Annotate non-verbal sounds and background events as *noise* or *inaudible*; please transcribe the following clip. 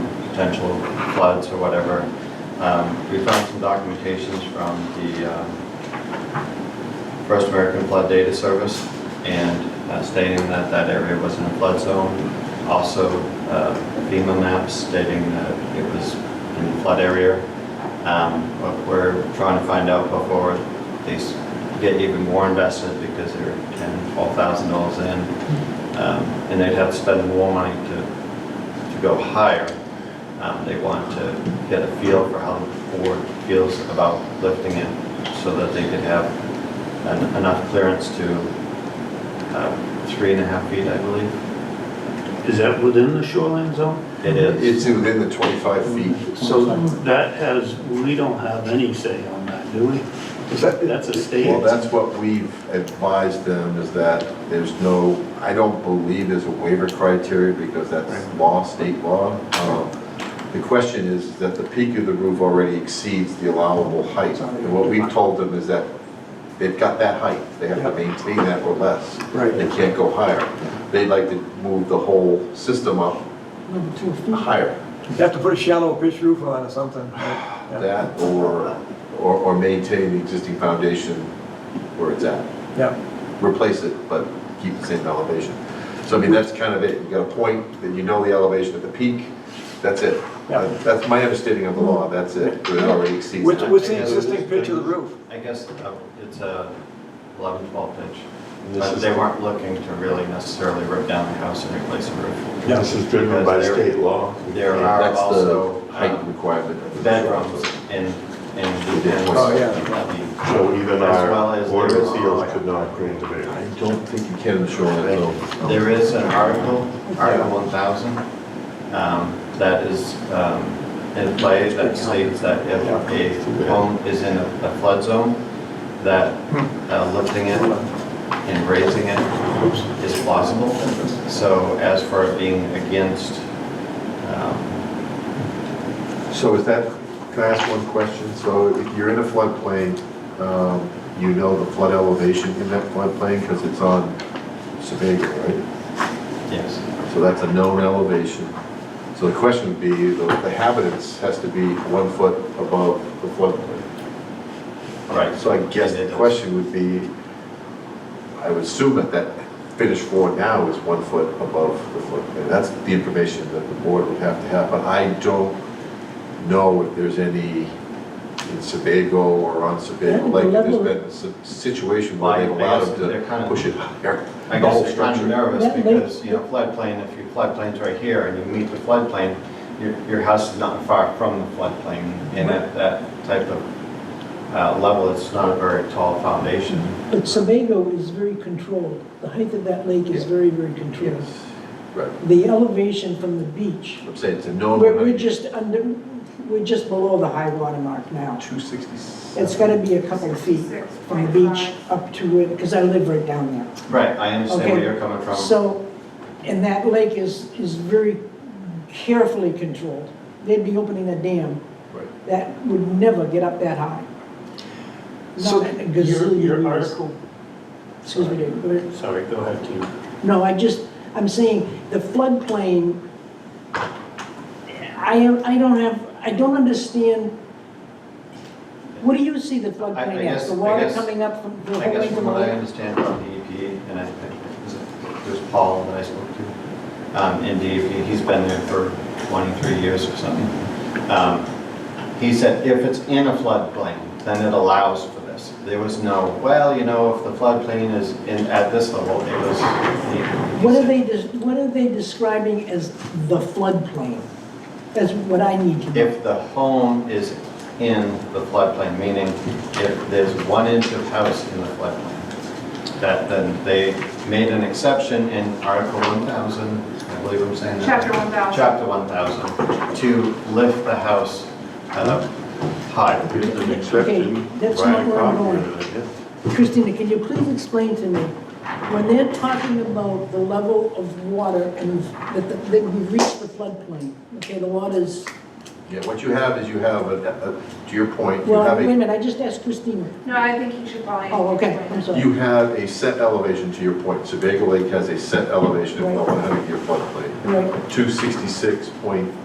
potential floods or whatever. Um, We found some documentations from the um, First American Flood Data Service and uh, stating that that area was in a flood zone. Also uh, FEMA maps stating that it was in a flood area. Um, But we're trying to find out before these get even more invested because they're ten, twelve thousand dollars in. Um, And they'd have to spend more money to, to go higher. Um, They want to get a feel for how the board feels about lifting it so that they could have en- enough clearance to uh, three and a half feet, I believe. Is that within the shoreline zone? It is. It's within the 25 feet. So that has, we don't have any say on that, do we? Is that- That's a state. Well, that's what we've advised them, is that there's no, I don't believe there's a waiver criteria, because that's law, state law. Um, The question is that the peak of the roof already exceeds the allowable height. And what we've told them is that they've got that height, they have to maintain that or less. Right. They can't go higher. They'd like to move the whole system up Number two. higher. You have to put a shallow pitch roof on or something. right? Yeah. that or, or, or maintain the existing foundation where it's at. Yeah, Replace it, but keep the same elevation. So I mean, that's kind of it. You got a point, that you know the elevation at the peak, that's it. Yeah. That's my understanding of the law, that's it. But It already exceeds What's- that. what's the existing pitch of the roof? I guess uh, it's a 11, 12 pitch. And this But is- they weren't looking to really necessarily rip down the house and replace the roof. Yeah. This is driven by Because there- state law. There are That's also the height um, requirement. of the- bedrooms in, in the. Oh, yeah. So even As well our as board there of is- appeals could not grant a I variance. don't think you can in the shoreline zone. There is an article, Article 1000, um, that is um, in play that states that if a home is in a a flood zone, that uh, lifting it and raising it is plausible. So as for it being against, um, So is that, can I ask one question? So if you're in a floodplain, um, you know the flood elevation in that floodplain because it's on Sebago, right? yes, So that's a known elevation. So the question would be, the the habitants has to be one foot above the floodplain. right. So I guess the question would be, I would assume that that finished floor now is one foot above the floodplain. That's the information that the board would have to have, but I don't know if there's any in Sebago or on Sebago, like, there's been a si- situation where they've allowed They're them kind to of- push it higher, *laughs* I the guess whole they're kind of structure. nervous Yeah, they- because, you know, floodplain, if your floodplain's right here and you meet the floodplain, your, your house is not far from the floodplain. And at that type of uh, level, it's not a very tall foundation. Mm-hmm. But Sebago is very controlled. The height of that lake is very, very controlled. Yes, right. The elevation from the beach, I'm saying it's a known. we're, we're just under, we're just below the high water mark now. Two sixty-seven. It's gotta be a couple of feet from the beach up to it, because I live right down there. Right, I understand where Okay. you're coming from. So, and that lake is, is very carefully controlled. They'd be opening a dam Right. that would never get up that high. So Not in a your, gazillion your years. article, Excuse me, David, go ahead. sorry, go ahead, Tim. No, I just, I'm saying, the floodplain, I, I don't have, I don't understand, what do you see the I- I floodplain guess- as? The I water guess- coming up from, the I whole way guess from from what I the... understand from DEP, and I think, is it- there's Paul that I spoke to, um, in DEP, he's been there for 23 years or something. Um, He said, if it's in a floodplain, then it allows for this. There was no, well, you know, if the floodplain is in, at this level, it was. he- he What are said- they, des- what are they describing as the floodplain? That's what I need to know. If the home is in the floodplain, meaning if there's one inch of house in the floodplain, that then they made an exception in Article 1000, I believe I'm saying that. Chapter 1000. Chapter 1000, to lift the house uh, high. It's an exception. that's right, not where I'm copy going. of it, yeah. Christina, can you please explain to me, when they're talking about the level of water and that the- that we've reached the floodplain, okay, the water's Yeah, what you have is you have, a- a- to your point, you Well, have wait a a minute, I just asked Christina. No, I think you should probably. Oh, okay, I'm sorry. You have a set elevation, to your point, Sebago Lake has a set elevation of Right. 1,100 year floodplain. Right. 266.8